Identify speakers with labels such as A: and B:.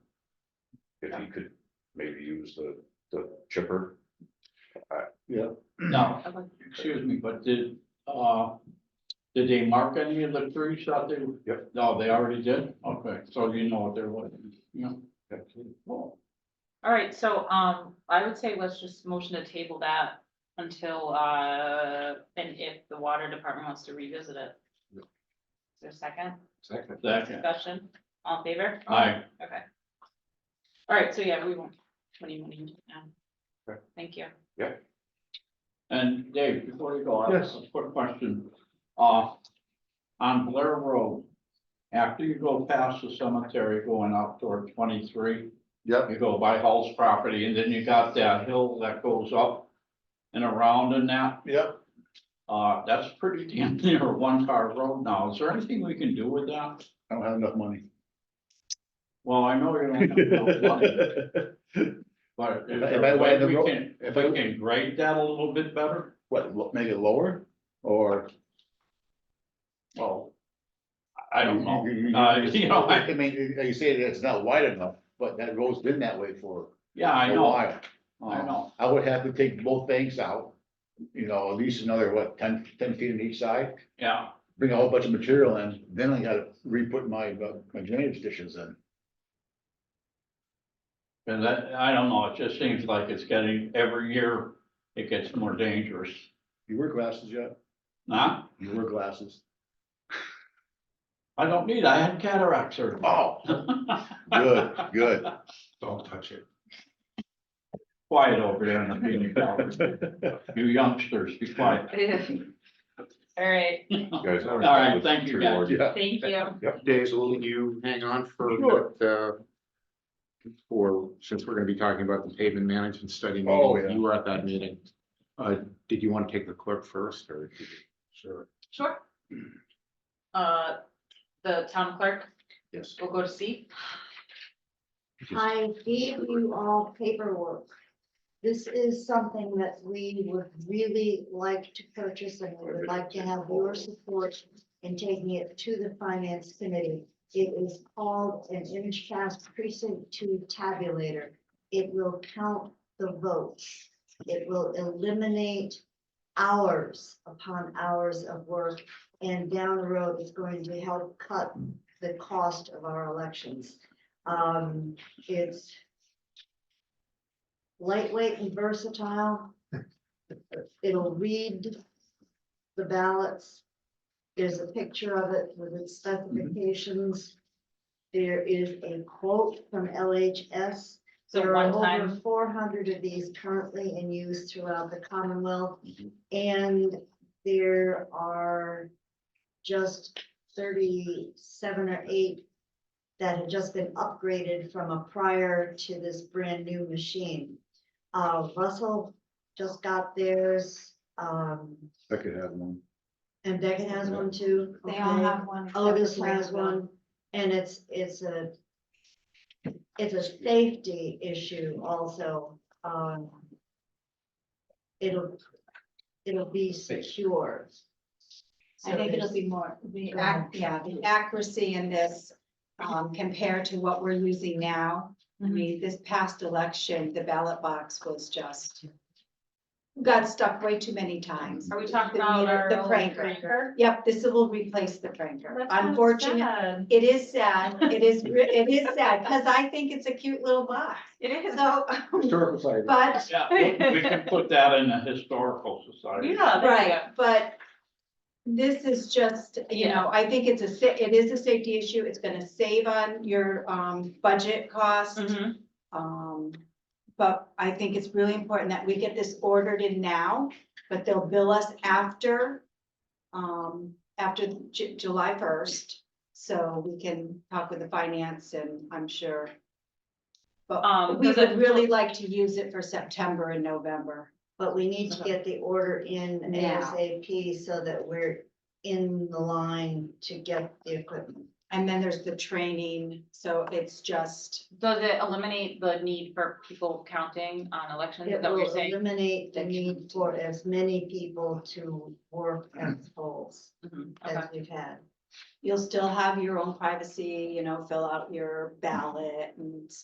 A: if he could maybe use the, the chipper.
B: Now,
C: Okay.
B: excuse me, but did, uh, did they mark any of the trees out there?
A: Yep.
B: No, they already did? Okay, so you know what they're looking, you know? Well,
C: All right, so, um, I would say let's just motion to table that until, uh, and if the water department wants to revisit it.
A: Yeah.
C: Is there a second
A: Second.
B: Second,
C: discussion? All in favor?
B: aye,
C: Okay. All right, so yeah, we won't, what do you mean now?
A: Okay.
C: Thank you.
B: and Dave, before you go, I have a quick question. Uh, on Blair Road, after you go past the cemetery going out toward twenty-three,
D: Yep,
B: you go by Hall's property, and then you got that hill that goes up and around and that.
D: yep.
B: Uh, that's pretty damn near a one-car road now. Is there anything we can do with that?
D: I don't have enough money.
B: Well, I know you don't have no money, but is
D: If I- if
B: there
D: I
B: a way
D: went the
B: we
D: road-
B: can, if
D: if
B: we
D: I-
B: can grade that a little bit better?
D: What, lo- make it lower or?
B: Well, I- I don't know.
D: You- you-
B: Uh, you know, I-
D: I mean, you you say that it's not wide enough, but that road's been that way for
B: Yeah, I
D: a
B: know,
D: while. Um,
B: I know.
D: I would have to take both banks out, you know, at least another, what, 10 10 feet on each side?
B: Yeah,
D: Bring a whole bunch of material in, then I gotta re-put my, uh, my drainage dishes in.
B: and that, I don't know. It just seems like it's getting, every year it gets more dangerous.
D: You wear glasses yet?
B: Nah,
D: You wear glasses?
B: I don't need, I had cataract surgery.
D: Oh, good, good.
A: Don't touch it.
B: Quiet over there in the meeting. You youngsters, be quiet.
C: All right,
A: All
B: All right, thank you, guys.
D: Yeah.
C: thank you.
A: Yep,
E: Dave, will you hang on for a
D: Sure.
E: minute, uh, for, since we're gonna be talking about the pavement management study
D: Oh,
E: meeting,
D: yeah.
E: you were at that meeting. Uh, did you want to take the clerk first, or? did you-
A: sure.
C: Sure. Uh, the town clerk
E: Yes.
C: will go to C.
F: I gave you all paperwork. This is something that we would really like to purchase and we would like to have your support in taking it to the finance committee. It is called an image pass precinct two tabulator. It will count the votes. It will eliminate hours upon hours of work. And down the road, it's going to help cut the cost of our elections. Um, it's lightweight and versatile. It'll read the ballots. There's a picture of it with its specifications. There is a quote from LHS.
C: So
F: There are
C: one
F: over
C: time,
F: four hundred of these currently in use throughout the Commonwealth.
C: Mm-hmm.
F: And there are just thirty-seven or eight that had just been upgraded from a prior to this brand new machine. Uh, Russell just got theirs, um,
D: I could have one.
F: and Beckett has one too.
G: They all
F: okay?
G: have one.
F: Otis has one, and it's, it's a, it's a safety issue also, um. It'll, it'll be secure.
G: I think it'll be more, the, ac- yeah, the accuracy in this, um, compared to what we're using now. I
C: Mm-hmm.
G: mean, this past election, the ballot box was just got stuck way too many times.
C: are we talking
G: The
C: about
G: meter-
C: our?
G: The
C: old
G: pranker. Yep, this will replace the pranker.
C: That's kinda
G: Unfortunately,
C: sad.
G: it is sad. It is, re- it is sad because I think it's a cute little box.
C: It is.
G: So,
D: Historical side.
G: but
B: Yeah, we- we can put that in the historical society.
C: Yeah, there you go.
G: Right, but this is just, you
C: Yeah.
G: know, I think it's a, sa- it is a safety issue. It's gonna save on your um budget costs.
C: Mhm.
G: Um, but I think it's really important that we get this ordered in now, but they'll bill us after um, after Ju- July first, so we can talk with the finance and I'm sure.
C: Um,
G: But we
C: does it-
G: would really like to use it for September and November.
F: But we need to get the order in
G: Now.
F: ASAP so that we're in the line to get the equipment.
G: And then there's the training, so it's just,
C: Does it eliminate the need for people counting on elections? Is
F: It
C: that what you're
F: will
C: saying?
F: eliminate the need for as many people to work as polls
C: Mhm,
F: as
C: Okay.
F: we've had.
G: you'll still have your own privacy, you know, fill out your ballot and